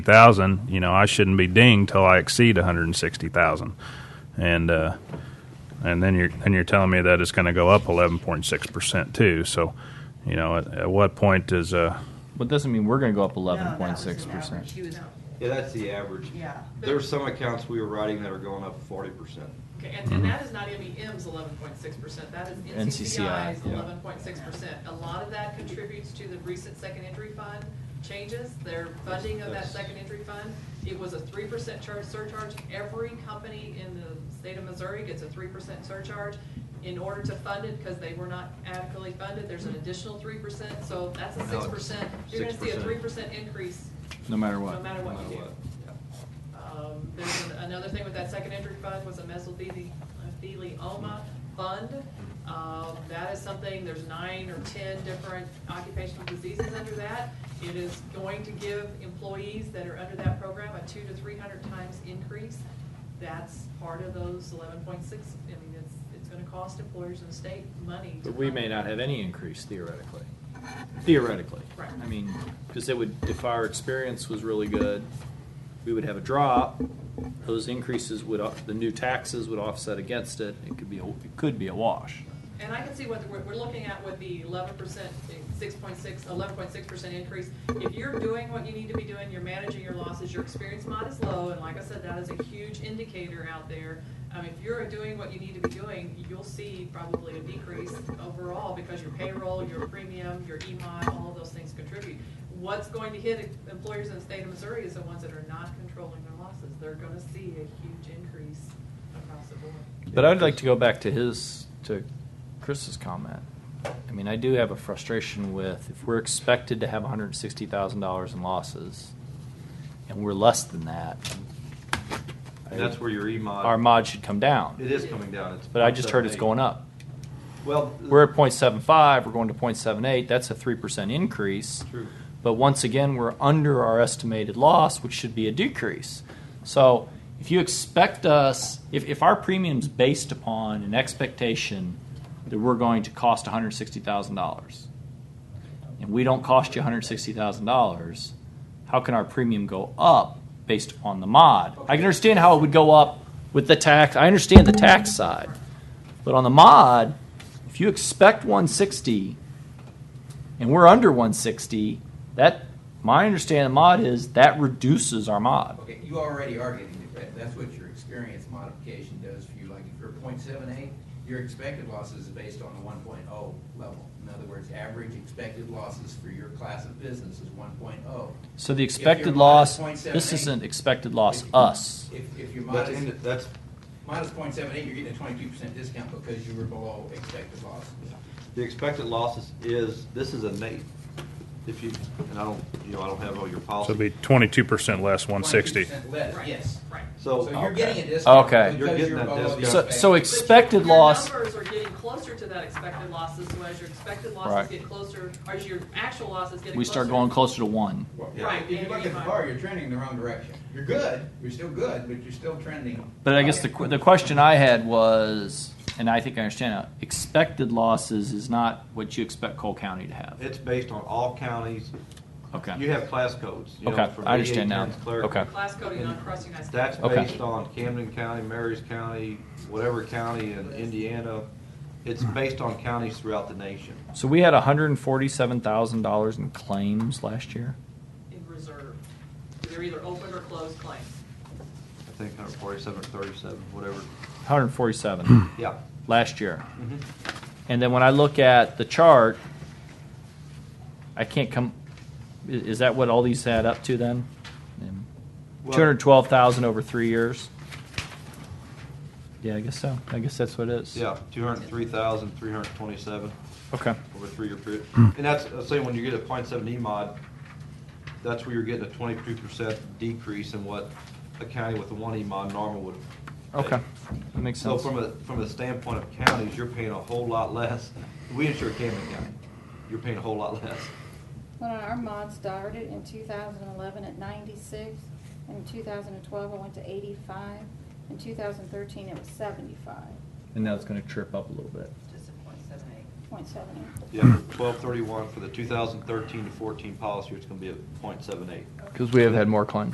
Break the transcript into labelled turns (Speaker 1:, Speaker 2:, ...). Speaker 1: thousand, you know, I shouldn't be dinged till I exceed one hundred and sixty thousand, and uh, and then you're and you're telling me that it's going to go up eleven point six percent too. So, you know, at, at what point is uh,
Speaker 2: But it doesn't mean we're gonna go up eleven
Speaker 3: No, that
Speaker 2: point
Speaker 3: was the
Speaker 2: six percent.
Speaker 3: average. He was-
Speaker 4: Yeah, that's the average.
Speaker 3: Yeah.
Speaker 4: There's some accounts we were writing that are going up forty percent.
Speaker 5: Okay, and,
Speaker 4: Mm-hmm.
Speaker 5: and that is not MEM's eleven point six percent, that is
Speaker 2: NCCI,
Speaker 5: NCCI's
Speaker 4: yeah.
Speaker 5: eleven point six percent. A lot of that contributes to the recent second entry fund changes, their funding of that
Speaker 4: That's-
Speaker 5: second entry fund. It was a three percent charge surcharge, every company in the state of Missouri gets a three percent surcharge. In order to fund it, because they were not adequately funded, there's an additional three percent, so that's a
Speaker 4: Now
Speaker 5: six
Speaker 4: it's
Speaker 5: percent. You're gonna see a
Speaker 4: 6%.
Speaker 5: three percent increase,
Speaker 2: No matter
Speaker 5: no
Speaker 2: what.
Speaker 5: matter
Speaker 4: no
Speaker 5: what
Speaker 4: matter
Speaker 5: you do.
Speaker 4: what. Yeah.
Speaker 5: Um, There's an- another thing with that second entry fund was a mesothelioma fund. Um, That is something, there's nine or 10 different occupational diseases under that. It is going to give employees that are under that program a two to 300 times increase. That's part of those 11.6, I mean, it's, it's going to cost employers in the state money. to
Speaker 2: But we
Speaker 5: fund
Speaker 2: may
Speaker 5: it.
Speaker 2: not have any increase theoretically. Theoretically.
Speaker 5: Right.
Speaker 2: I mean, because it would, if our experience was really good, we would have a drop. Those increases would, off- the new taxes would offset against it. It could be, a- it could be a wash.
Speaker 5: And I can see what we're, we're looking at with the eleven percent, six point six, eleven point six percent increase. If you're doing what you need to be doing, you're managing your losses, your experience mod is low, and like I said, that is a huge indicator out there. Um, if you're doing what you need to be doing, you'll see probably a decrease overall because your payroll, your premium, your EMOD, all of those things contribute. What's going to hit employers in the state of Missouri is the ones that are not controlling their losses. They're gonna see a huge increase across the board.
Speaker 2: But I'd like to go back to his, to Chris's comment. I mean, I do have a frustration with if we're expected to have hundred and sixty thousand dollars in losses, and we're less than that,
Speaker 4: And that's where your E E-mod.
Speaker 2: our mod should come down.
Speaker 4: It is coming down. It's
Speaker 2: But I just heard it's
Speaker 4: 0.78.
Speaker 2: going up.
Speaker 4: Well.
Speaker 2: We're at 0.75. seven-five, we're going to 0.78. that's a three percent increase.
Speaker 4: True.
Speaker 2: But once again, we're under our estimated loss, which should be a decrease. So if you expect us, if, if our premium's based upon an expectation that we're going to cost $160,000, and we don't cost you $160,000, how can our premium go up based upon the mod? I can understand how it would go up with the tax. I understand the tax side. But on the mod, if you expect 160 and we're under 160, that my understanding of mod is that reduces our mod.
Speaker 6: Okay, you already are getting the credit. That's what your experience modification does for you. Like if you're point seven eight, your expected losses is based on the one oh level. In other words, average expected losses for your class of business is one oh.
Speaker 2: So the
Speaker 6: If your
Speaker 2: expected
Speaker 6: mod
Speaker 2: loss,
Speaker 6: is
Speaker 2: this
Speaker 6: 0.78,
Speaker 2: isn't expected loss, us.
Speaker 6: If, if your mod
Speaker 4: That's,
Speaker 6: is,
Speaker 4: in- that's,
Speaker 6: mod is point seven eight, you're getting a twenty-two percent discount because you were below expected losses.
Speaker 4: the expected losses is, this is a Nate. If you, and I don't, you know, I don't have all your
Speaker 1: so
Speaker 4: policies.
Speaker 1: be twenty two percent less one sixty?
Speaker 6: 22% Less,
Speaker 5: Right,
Speaker 6: Uh, yes.
Speaker 5: Right.
Speaker 4: So,
Speaker 6: So you're
Speaker 4: okay.
Speaker 6: getting a discount
Speaker 2: Okay.
Speaker 4: You're
Speaker 6: because
Speaker 4: getting
Speaker 6: you're
Speaker 4: that
Speaker 6: below the
Speaker 2: So,
Speaker 4: discount.
Speaker 2: so
Speaker 5: But your-
Speaker 2: expected loss.
Speaker 5: Your numbers are getting closer to that expected losses, so as your expected
Speaker 2: Right.
Speaker 5: losses get closer, or as your actual losses get closer.
Speaker 2: We start going closer to one.
Speaker 4: Yeah.
Speaker 6: Right, if you look at the bar, you're trending in the wrong direction. You're good, you're still good, but you're still trending.
Speaker 2: But I guess the, qu- the question I had was, and I think I understand now, expected losses is not what you expect Cole County to have.
Speaker 4: It's based on all counties.
Speaker 2: Okay.
Speaker 4: You have class codes. you know,
Speaker 2: Okay,
Speaker 4: from
Speaker 2: I understand now.
Speaker 4: VA, clerk.
Speaker 2: Okay.
Speaker 5: Class coding on across the United States.
Speaker 4: That's
Speaker 2: Okay.
Speaker 4: based on Camden County, Marys County, whatever county in Indiana. It's based on counties throughout the nation.
Speaker 2: So we had $147,000 in claims last year.
Speaker 5: In reserve. They're either open or closed claims.
Speaker 4: I think 147 or 37, whatever.
Speaker 2: 147
Speaker 4: Yeah.
Speaker 2: last year. And then when I look at the chart, I can't come. i- Is that what all these add up to then? Um,
Speaker 4: Well-
Speaker 2: 212,000 over three years? Yeah, I guess so. I guess that's what it is.
Speaker 4: Yeah, 203,327
Speaker 2: Okay.
Speaker 4: over a three-year period.
Speaker 2: Hmm.
Speaker 4: And that's, I'm saying, when you get a .7 E mod, that's where you're getting a 22% decrease in what a county with a 1 E mod normal would. take.
Speaker 2: Okay. That makes
Speaker 4: So
Speaker 2: sense.
Speaker 4: from a, from the standpoint of counties, you're paying a whole lot less. We insure Camden County. You're paying a whole lot less.
Speaker 7: Well, our mod started in 2011 at 96, in 2012 it went to 85, in 2013 it was 75.78.
Speaker 2: and now it's going to trip up a little bit.
Speaker 3: Just a point seven eight.
Speaker 4: Yeah,
Speaker 2: Hmm.
Speaker 4: 1231 for the 2013 to 14 policy, it's going to be a .78.
Speaker 2: Because we have had more claims.